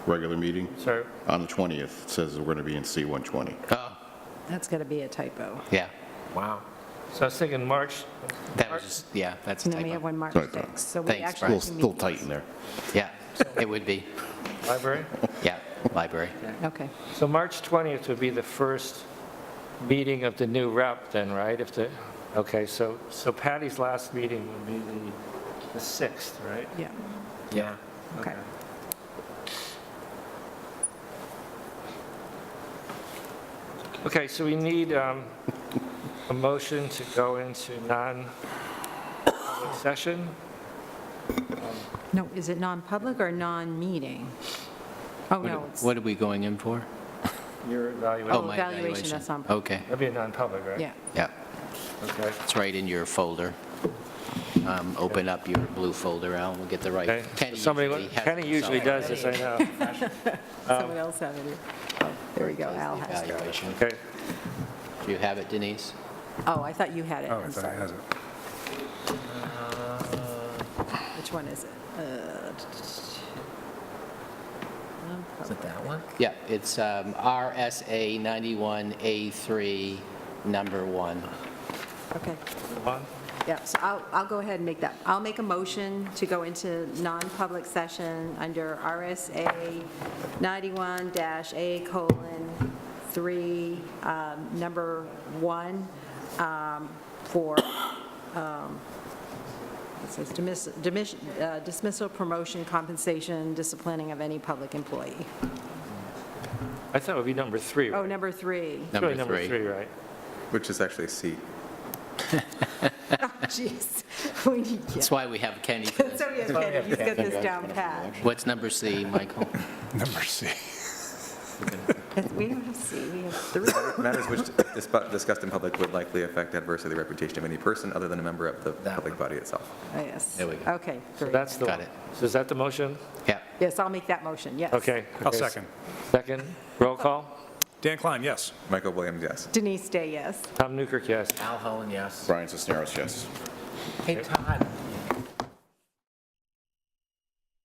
regular meeting Sorry. on the 20th. It says we're going to be in C-120. Oh, That's got to be a typo. yeah. Wow. So I was thinking March, That was just, yeah, that's a And then we have typo. one March Sorry, Tom. 6th. So we Thanks, actually Still have two still meetings. tight in there. Yeah, it would be. library. Yeah, library. Okay. So March 20th would be the first meeting of the new rep then, right? If the, okay, so, so Patty's last meeting would be the, the 6th, right? Yeah. Yeah. Okay. Okay, so we need um, a motion to go into non-public session. No, is it non-public or non-meeting? Oh, no, What it's, what are we going in for? Your Oh, evaluation, my evaluation, that's on- Okay, that'd be a non-public, right? yeah. yeah. Okay. It's right in your folder. Um, Open up your blue folder, Al, we'll get the right. Okay. Kenny Somebody, usually has Kenny it, usually so- does this, I know. Someone else have it. Oh, There we go, does the Al has it. evaluation. Okay. Do you have it, Denise? Oh, I thought you had it, Oh, I I'm thought it sorry. has it. Which one is it? Uh, Is it that one? Yeah, it's um, RSA 91A3, number one. Okay, One. yeah, so I'll, I'll go ahead and make that. I'll make a motion to go into non-public session under RSA 91-A colon 3, um, number 1, um, for um, It says dismiss- dismiss- uh, dismissal, promotion, compensation, disciplining of any public employee. I thought it would be number three, Oh, right? number three. It's really Number three, right? Which is actually C. Oh, Jeez. We need- yeah. That's why we have Kenny. for this. So we have Kenny, he's got this down pat. What's number C, Michael? Number C. We don't have C, we have three. Matters which dis- discussed in public would likely affect adversely the reputation of any person other than a member of the public body itself. Oh, Yes. There we go. Okay, So three. that's the. Got it. So is that the motion? Yeah, Yes, I'll make that motion, yes. Okay. I'll Okay. second. Second, roll call. Dan Klein, yes. Michael Williams, yes. Denise Day, yes. Tom Newkirk, yes. Al Holland, yes. Brian Cisneros, yes. Hey, Todd,